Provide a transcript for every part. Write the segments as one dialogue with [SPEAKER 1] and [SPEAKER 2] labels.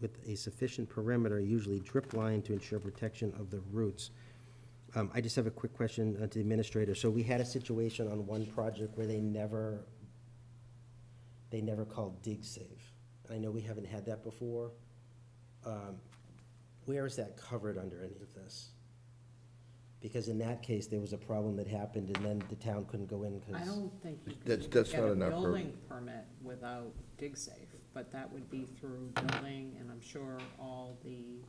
[SPEAKER 1] with a sufficient perimeter, usually drip line to ensure protection of the roots. Um, I just have a quick question uh, to the administrator. So we had a situation on one project where they never, they never called dig safe. I know we haven't had that before. Um, Where is that covered under any of this? Because in that case, there was a problem that happened and then the town couldn't go in because.
[SPEAKER 2] I don't think you
[SPEAKER 3] That's-
[SPEAKER 2] can
[SPEAKER 3] that's
[SPEAKER 2] get
[SPEAKER 3] not
[SPEAKER 2] a
[SPEAKER 3] enough per-
[SPEAKER 2] building permit without dig safe, but that would be through building, and I'm sure all the, you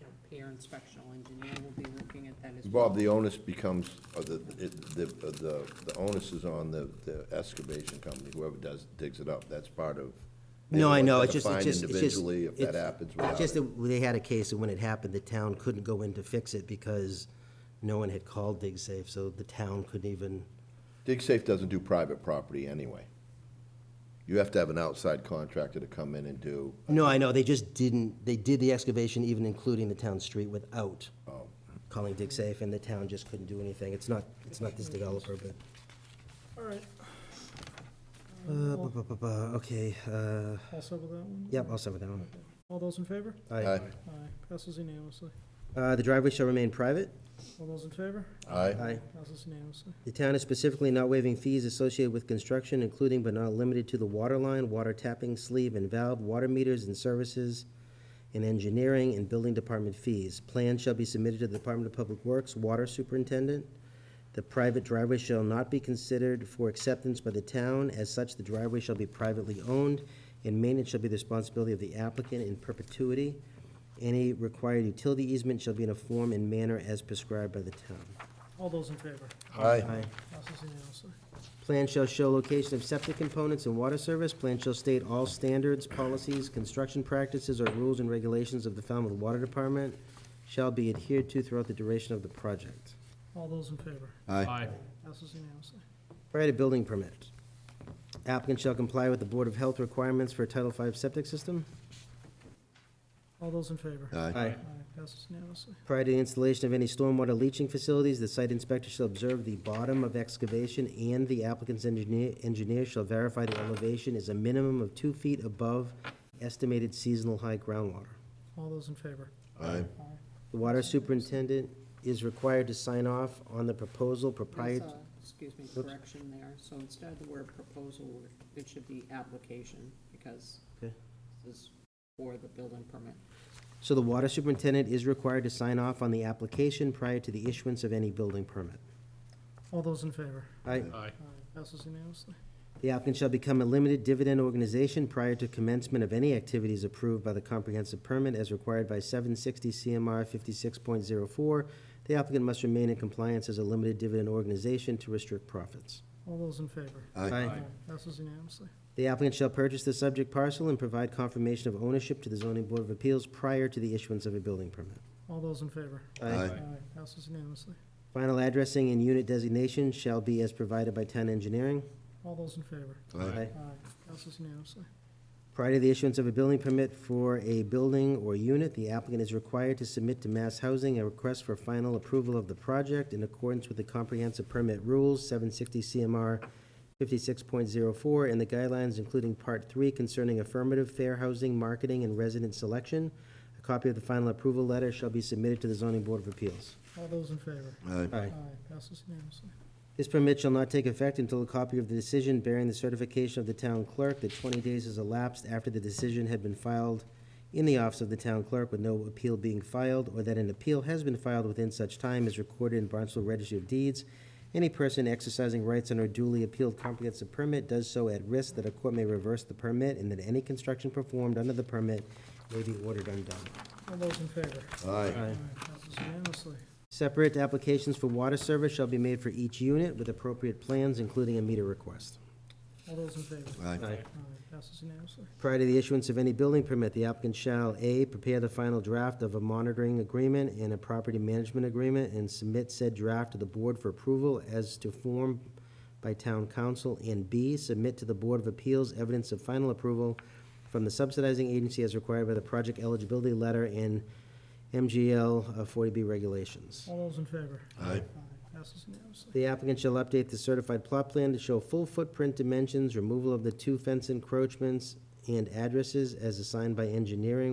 [SPEAKER 2] know, peer inspectional engineer will be looking at that as well.
[SPEAKER 3] Bob, the onus becomes, uh, the, it- the, uh, the the onus is on the, the excavation company, whoever does, digs it up, that's part of.
[SPEAKER 1] No, I know, it's just,
[SPEAKER 3] Find
[SPEAKER 1] it's just, it's just.
[SPEAKER 3] Individually, if that
[SPEAKER 1] it's-
[SPEAKER 3] happens
[SPEAKER 1] It's
[SPEAKER 3] without
[SPEAKER 1] just
[SPEAKER 3] it.
[SPEAKER 1] that they had a case, and when it happened, the town couldn't go in to fix it because no one had called DigSafe, so the town couldn't even,
[SPEAKER 3] Dig Safe doesn't do private property anyway. You have to have an outside contractor to come in and do,
[SPEAKER 1] no, I know, they just didn't, they did the excavation even including the town street without
[SPEAKER 3] Oh.
[SPEAKER 1] calling DigSafe, and the town just couldn't do anything. It's not, it's not this developer, but.
[SPEAKER 4] All right,
[SPEAKER 1] Uh, bu- bu- bu- bu- Okay, uh,
[SPEAKER 4] also with that one?
[SPEAKER 1] yep, I'll start with that one.
[SPEAKER 4] All those in favor?
[SPEAKER 3] aye,
[SPEAKER 4] Aye, passes unanimously.
[SPEAKER 1] Uh, The driveway shall remain private.
[SPEAKER 4] All those in favor?
[SPEAKER 3] aye,
[SPEAKER 4] Passes unanimously.
[SPEAKER 1] The town is specifically not waiving fees associated with construction, including but not limited to the water line, water tapping sleeve and valve, water meters and services, and engineering and building department fees. Plans shall be submitted to the Department of Public Works, Water Superintendent. The private driveway shall not be considered for acceptance by the town. As such, the driveway shall be privately owned, and maintenance shall be the responsibility of the applicant in perpetuity. Any required utility easement shall be in a form and manner as prescribed by the town.
[SPEAKER 4] All those in favor?
[SPEAKER 3] aye,
[SPEAKER 4] Passes unanimously.
[SPEAKER 1] Plan shall show location of septic components and water service. Plan shall state all standards, policies, construction practices, or rules and regulations of the Falmouth Water Department shall be adhered to throughout the duration of the project.
[SPEAKER 4] All those in favor?
[SPEAKER 3] aye,
[SPEAKER 4] Passes unanimously.
[SPEAKER 1] Prior to building permit, applicant shall comply with the Board of Health requirements for a Title V septic system.
[SPEAKER 4] All those in favor?
[SPEAKER 3] aye,
[SPEAKER 4] Aye, passes unanimously.
[SPEAKER 1] Prior to the installation of any stormwater leaching facilities, the site inspector shall observe the bottom of excavation, and the applicant's engineer, engineer shall verify the elevation is a minimum of two feet above estimated seasonal high groundwater.
[SPEAKER 4] All those in favor?
[SPEAKER 3] aye,
[SPEAKER 4] Aye,
[SPEAKER 1] The water superintendent is required to sign off on the proposal
[SPEAKER 2] That's
[SPEAKER 1] proprietary.
[SPEAKER 2] a, excuse me, correction there, so instead of the word proposal, it should be application, because
[SPEAKER 1] Okay.
[SPEAKER 2] this is for the building permit.
[SPEAKER 1] So the water superintendent is required to sign off on the application prior to the issuance of any building permit.
[SPEAKER 4] All those in favor?
[SPEAKER 1] Aye.
[SPEAKER 4] Aye, passes unanimously.
[SPEAKER 1] The applicant shall become a limited dividend organization prior to commencement of any activities approved by the comprehensive permit as required by seven sixty CMR fifty-six point zero four. The applicant must remain in compliance as a limited dividend organization to restrict profits.
[SPEAKER 4] All those in favor?
[SPEAKER 3] aye,
[SPEAKER 4] Passes unanimously.
[SPEAKER 1] The applicant shall purchase the subject parcel and provide confirmation of ownership to the zoning board of appeals prior to the issuance of a building permit.
[SPEAKER 4] All those in favor?
[SPEAKER 3] aye,
[SPEAKER 4] Aye, passes unanimously.
[SPEAKER 1] Final addressing and unit designation shall be as provided by town engineering.
[SPEAKER 4] All those in favor?
[SPEAKER 3] aye,
[SPEAKER 4] Aye, passes unanimously.
[SPEAKER 1] Prior to the issuance of a building permit for a building or unit, the applicant is required to submit to Mass Housing a request for final approval of the project in accordance with the comprehensive permit rules, seven sixty CMR fifty-six point zero four, and the guidelines including part three concerning affirmative fair housing, marketing, and resident selection. A copy of the final approval letter shall be submitted to the zoning board of appeals.
[SPEAKER 4] All those in favor?
[SPEAKER 3] aye,
[SPEAKER 1] Aye.
[SPEAKER 4] Aye, passes unanimously.
[SPEAKER 1] This permit shall not take effect until a copy of the decision bearing the certification of the town clerk that twenty days has elapsed after the decision had been filed in the office of the town clerk with no appeal being filed, or that an appeal has been filed within such time is recorded in Barnstable Registry of Deeds. Any person exercising rights under a duly appealed comprehensive permit does so at risk that a court may reverse the permit and that any construction performed under the permit may be ordered undone.
[SPEAKER 4] All those in favor?
[SPEAKER 3] aye,
[SPEAKER 4] Aye, passes unanimously.
[SPEAKER 1] Separate applications for water service shall be made for each unit with appropriate plans, including a meter request.
[SPEAKER 4] All those in favor?
[SPEAKER 3] aye,
[SPEAKER 4] Aye, passes unanimously.
[SPEAKER 1] Prior to the issuance of any building permit, the applicant shall, A, prepare the final draft of a monitoring agreement and a property management agreement and submit said draft to the board for approval as to form by town council, and B, submit to the Board of Appeals evidence of final approval from the subsidizing agency as required by the project eligibility letter and MGL uh, forty B regulations.
[SPEAKER 4] All those in favor?
[SPEAKER 3] aye,
[SPEAKER 4] Passes unanimously.
[SPEAKER 1] The applicant shall update the certified plot plan to show full footprint dimensions, removal of the two fence encroachments and addresses as assigned by engineering